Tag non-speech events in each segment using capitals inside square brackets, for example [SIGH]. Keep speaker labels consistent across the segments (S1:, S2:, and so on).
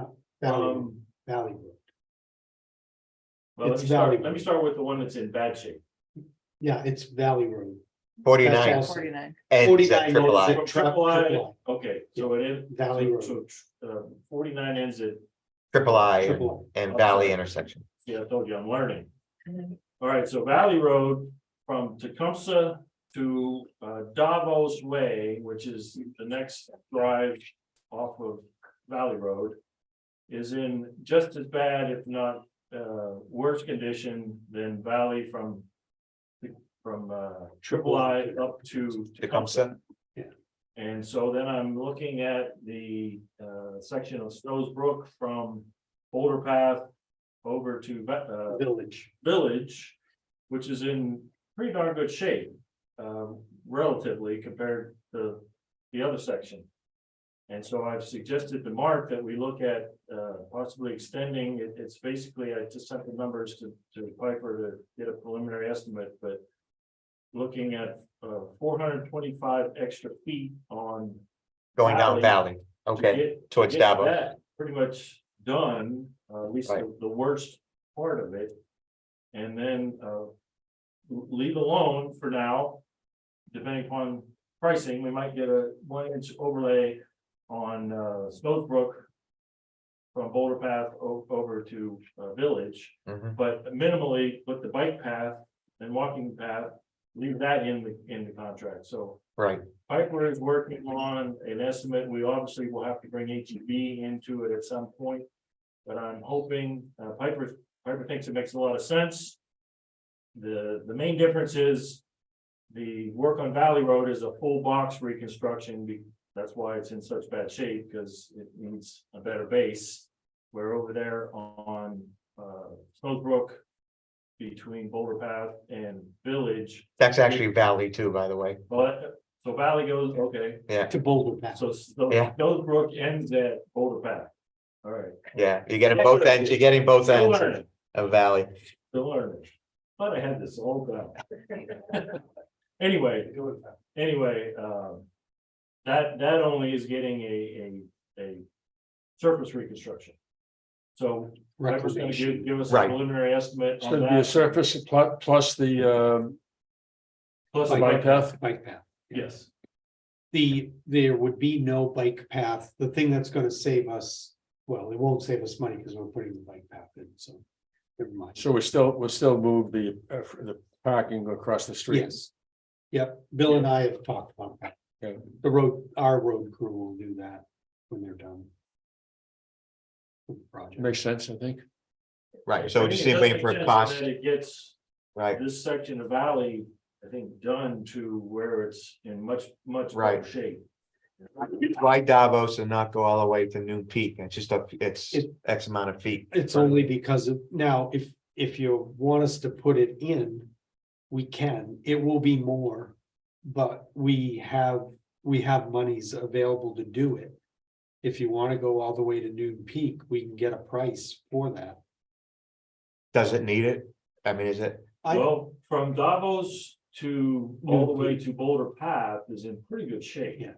S1: Valley,
S2: Um,
S1: Valley Road.
S2: well, let
S1: It's
S2: me start,
S1: valuable.
S2: let me start with the one that's in bad shape.
S1: Yeah, it's Valley Road. That's
S3: Forty-nine
S1: also-
S4: Forty-nine.
S3: ends at
S1: 49
S3: triple
S1: ends
S3: I.
S1: at tri-
S2: Triple I.
S1: triple
S2: Okay, so it is,
S1: I, Valley
S2: so,
S1: Road,
S2: so, uh, forty-nine ends at,
S3: triple I
S1: triple
S3: and Valley intersection.
S2: yeah, I told you, I'm learning. All right, so Valley Road from Tecumseh to uh, Davos Way, which is the next drive off of Valley Road. Is in just as bad, if not uh, worse condition than Valley from. From uh, Triple I up to Tecumseh. And so then I'm looking at the uh, section of Snow's Brook from Boulder Path over to Va- uh,
S1: I, Village.
S2: village, which is in pretty darn good shape, um, relatively compared to the other section. And so I've suggested to Mark that we look at, uh, possibly extending, it, it's basically, I just sent the numbers to, to Piper to get a preliminary estimate, but looking at, uh, four hundred twenty-five extra feet on.
S3: Going down
S2: Valley.
S3: Valley,
S2: to
S3: okay,
S2: get- to
S3: towards
S2: get
S3: Davos.
S2: that Pretty much done, uh, at least the,
S3: Right.
S2: the worst part of it. And then, uh, leave alone for now. Depending upon pricing, we might get a one inch overlay on, uh, Smoke Brook. From Boulder Path o- over to, uh, Village,
S3: Mhm.
S2: but minimally put the bike path and walking path, leave that in the, in the contract, so.
S3: right,
S2: Piper is working on an estimate. We obviously will have to bring H E B into it at some point. But I'm hoping, uh, Piper, Piper thinks it makes a lot of sense. The, the main difference is the work on Valley Road is a full box reconstruction. be- That's why it's in such bad shape, because it needs a better base. We're over there on, uh, Smoke Brook between Boulder Path and Village,
S3: that's actually Valley too, by the way,
S2: but, so Valley goes, okay.
S1: To Boulder Pass.
S2: So, so
S3: Yeah.
S2: those brook ends at Boulder Path. All right.
S3: yeah, you're getting both ends, you're getting both
S2: Still
S3: ends
S2: learning,
S3: of Valley.
S2: still learning. Thought I had this all down. [LAUGHS] Anyway, anyway, um. That, that only is getting a, a, a surface reconstruction. So Piper's gonna give,
S1: Reclamation.
S2: give us a
S3: Right.
S2: preliminary estimate
S5: It's
S2: on
S5: gonna be a
S2: that.
S5: surface plus, plus the, um
S2: Plus
S5: the
S2: a
S5: bike path.
S1: Bike path.
S2: Yes,
S1: The, there would be no bike path. The thing that's gonna save us, well, it won't save us money because we're putting the bike path in, so. Never mind.
S5: So we still, we'll still move the, uh, the parking across the street.
S1: Yes. Yep, Bill and I have talked about that.
S5: Yeah.
S1: The road, our road crew will do that when they're done. with the Project.
S5: Makes sense, I think.
S3: Right, so
S2: I
S3: we're
S2: think
S3: just
S2: it does
S3: waiting
S2: make
S3: for
S2: sense
S3: a
S2: that
S3: cost,
S2: It gets.
S3: right,
S2: this section of valley, I think, done to where it's in much, much better
S3: Right.
S2: shape.
S3: why Davos and not go all the way to Noon Peak, it's just a, it's
S1: It-
S3: X amount of feet.
S1: It's only because of, now, if, if you want us to put it in, we can, it will be more. But we have, we have monies available to do it. If you wanna go all the way to Noon Peak, we can get a price for that.
S3: Does it need it? I mean, is it,
S1: I-
S2: Well, from Davos to all the way to Boulder Path is in pretty good shape.
S1: Yeah.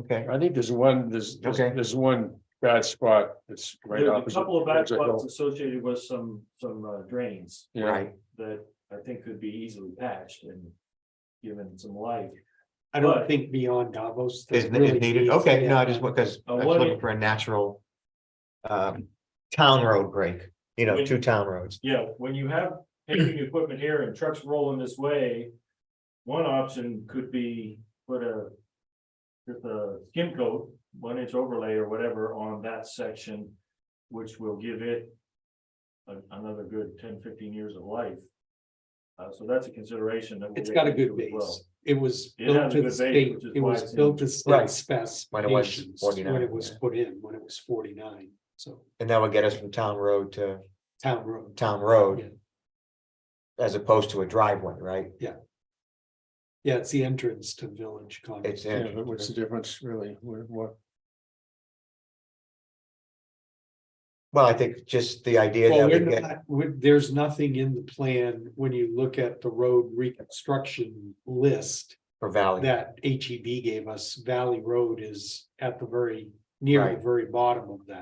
S3: okay,
S5: I think there's one, there's, there's
S3: Okay.
S5: there's one bad spot that's right
S2: There's a
S5: opposite.
S2: couple of back
S5: there's a hill.
S2: spots associated with some, some uh, drains
S5: Yeah,
S3: right,
S2: that I think could be easily patched and given some life.
S1: I don't
S2: But-
S1: think beyond Davos. that
S3: is is
S1: really
S3: needed,
S1: needs
S3: okay, no, I
S1: that.
S3: just, because I
S2: Uh,
S3: was
S2: what
S3: looking
S2: if-
S3: for a natural. Um, town road break, you know,
S2: When-
S3: two town roads,
S2: Yeah, when you have
S1: [CLEARS THROAT]
S2: paving equipment here and trucks rolling this way, one option could be put a. With a skim coat, one inch overlay or whatever on that section, which will give it. a- Another good 10, 15 years of life. Uh, so that's a consideration that. we'll
S1: It's
S2: look
S1: got a
S2: into
S1: good
S2: as well.
S1: base. It was
S2: It
S1: built
S2: has a
S1: to
S2: good
S1: the
S2: base,
S1: state,
S2: which is
S1: it
S2: why
S1: was
S2: it's
S1: built to
S3: Right.
S1: state
S3: When it was
S1: specifications when
S3: 49,
S1: it was
S3: yeah.
S1: put in, when it was forty-nine, so
S3: and that would get us from town road to
S1: town road.
S3: town
S1: Yeah.
S3: road. As opposed to a driveway, right?
S1: Yeah, it's the entrance to Village Common.
S3: It's
S5: yeah, but what's the
S3: in,
S5: difference really? What, what,
S3: well, I think just the idea
S1: Well,
S3: that we
S1: we're
S3: get,
S1: not, we- there's nothing in the plan when you look at the road reconstruction list
S3: for Valley,
S1: that H E B gave us. Valley Road is at the very, near the
S3: Right.
S1: very bottom of that.